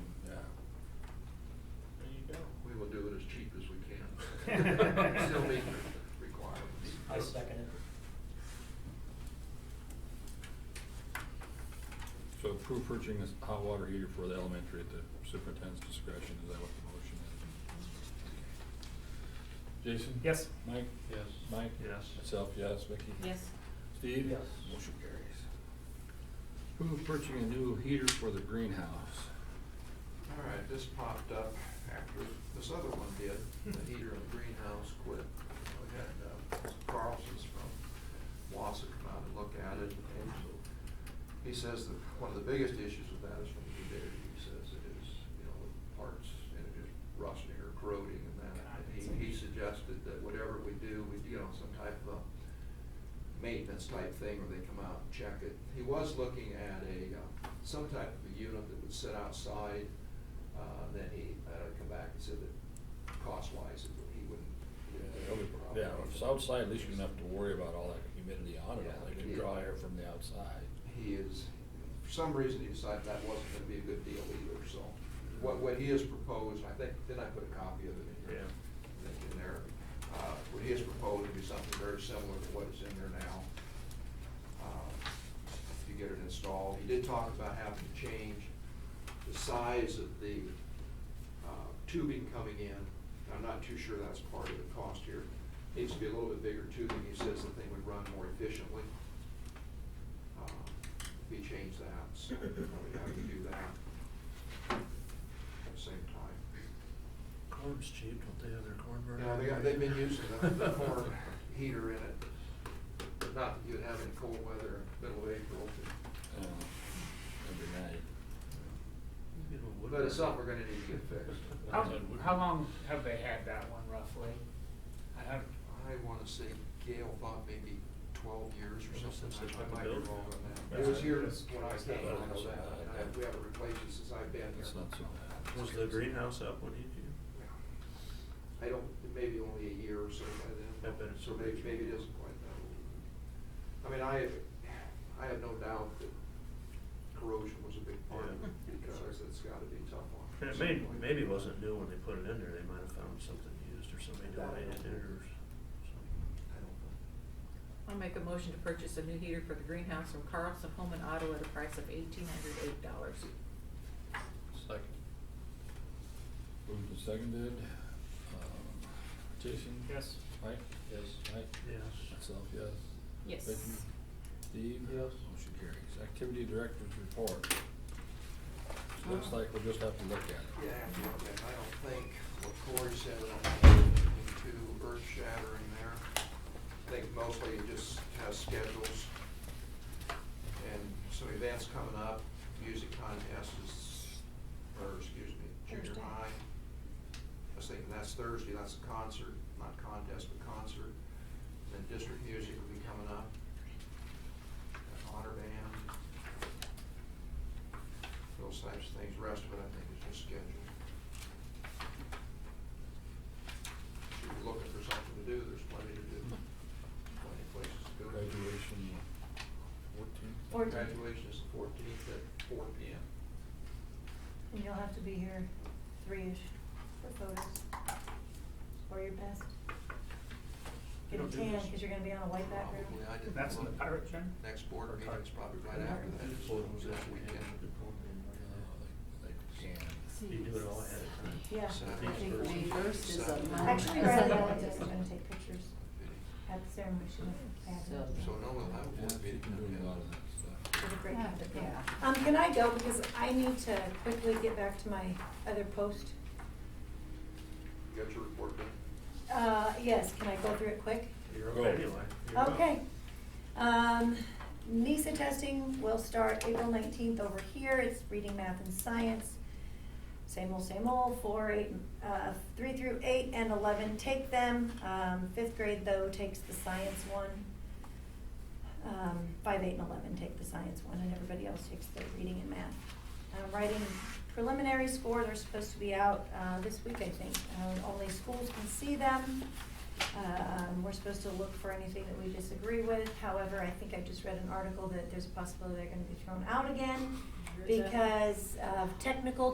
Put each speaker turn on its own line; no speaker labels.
approve purchasing a hot water heater for the elementary at the superintendent's discretion, is that what the motion is? Jason?
Yes.
Mike?
Yes.
Mike?
Yes.
Myself, yes. Vicki?
Yes,
Steve?
Yes.
Motion carries. Approve purchasing a new heater for the greenhouse.
All right, this popped up after this other one did, the heater in the greenhouse quit. We had uh, Carlson's from Wassa come out and look at it, and he says that one of the biggest issues with that is from the humidity. He says it is, you know, the parts, and it is rusting or corroding and that. And he, he suggested that whatever we do, we, you know, some type of a maintenance type thing where they come out and check it. He was looking at a, uh, some type of a unit that would sit outside, uh, then he, uh, come back and said that cost wise, he wouldn't.
That would- Yeah, if it's outside, at least you don't have to worry about all that humidity on it,
Yeah.
like you draw air from the outside.
He is, for some reason, he decided that wasn't gonna be a good deal either, so what, what he has proposed, I think, did I put a copy of it in
Yeah.
here? I think in there, uh, what he has proposed would be something very similar to what is in there now. Uh, If you get it installed, he did talk about having to change the size of the, uh, tubing coming in. I'm not too sure that's part of the cost here. Needs to be a little bit bigger tubing, he says the thing would run more efficiently uh, we changed that, so we probably have to do that at the same time.
Corn's cheap, don't they have their corn burner?
Yeah, they got, they've been using the the corn heater in it, but not that you'd have any cold weather in the middle of April.
uh, Every night.
You know, wood
But it's
burner.
something we're gonna need to get fixed.
How, how long have they had that one roughly? I have,
I wanna say Gail thought maybe twelve years or
Well,
something,
since
I- I
they put
might
the
be
building
wrong on
up.
that. It was
Yeah.
here when I came, I know that,
Yeah.
and I- we haven't replaced it since I've been here.
It's not so bad.
Was the greenhouse up when you do?
I don't, maybe only a year or so by then.
I bet it's
So maybe,
original.
maybe it isn't quite that old. I mean, I, I have no doubt that corrosion was a big part of it,
Yeah.
because it's gotta be tough on.
And it may, maybe it wasn't new when they put it in there, they might have found something used or somebody donated it or something.
I don't know.
I'll make a motion to purchase a new heater for the greenhouse from Carlson Home and Auto at a price of eighteen hundred eight dollars.
Second. Moved and seconded. Um, Jason?
yes,
Mike? Yes. Mike?
Yes.
Myself, yes.
Yes.
Vicky? Steve?
Yes.
Motion carries. Activity director's report. Looks like we'll just have to look at it.
Yeah, I don't think- I don't think what Corey said, I don't think there's anything too earth shattering there. I think mostly it just has schedules and some events coming up, music contest is, or excuse me, junior
Thursday.
high. I was thinking that's Thursday, that's a concert, not contest, but concert. Then district music will be coming up. Honor band. Those types of things, rest of it I think is just scheduled. If you're looking for something to do, there's plenty to do, plenty of places to go.
Graduation fourteenth?
Fourteenth.
Graduation is the fourteenth at four P M.
And you'll have to be here three-ish for photos, or your best.
You
Get
don't
a
do
tan,
this. Oh,
because you're gonna be on a white background.
Probably, I didn't.
that's in the
look.
pirate gen?
Next board meeting's probably right after that, it's that weekend.
Oh,
Oh,
You do it all ahead of time.
Yeah.
Saturday,
I think
Thursday,
May
first is a
Saturday.
Monday.
Actually, Riley Allen is gonna take pictures at the ceremony, she went
So no, we'll have a
Yeah,
board
she
meeting.
can do a lot of that stuff.
Yeah.
Um, can I go, because I need to quickly get back to my other post.
You got your report done?
Uh, yes, can I go through it quick?
You're up
Go.
anyway. You're up.
Okay. Um, NISA testing will start April nineteenth over here. It's reading, math, and science. Same old, same old, four, eight, uh, three through eight and eleven take them. Um, fifth grade though takes the science one. Um, five, eight, and eleven take the science one, and everybody else takes the reading and math. Uh, writing preliminary scores are supposed to be out, uh, this week, I think. Uh, only schools can see them. Um, we're supposed to look for anything that we disagree with, however, I think I just read an article that there's a possibility they're gonna be thrown out again because of technical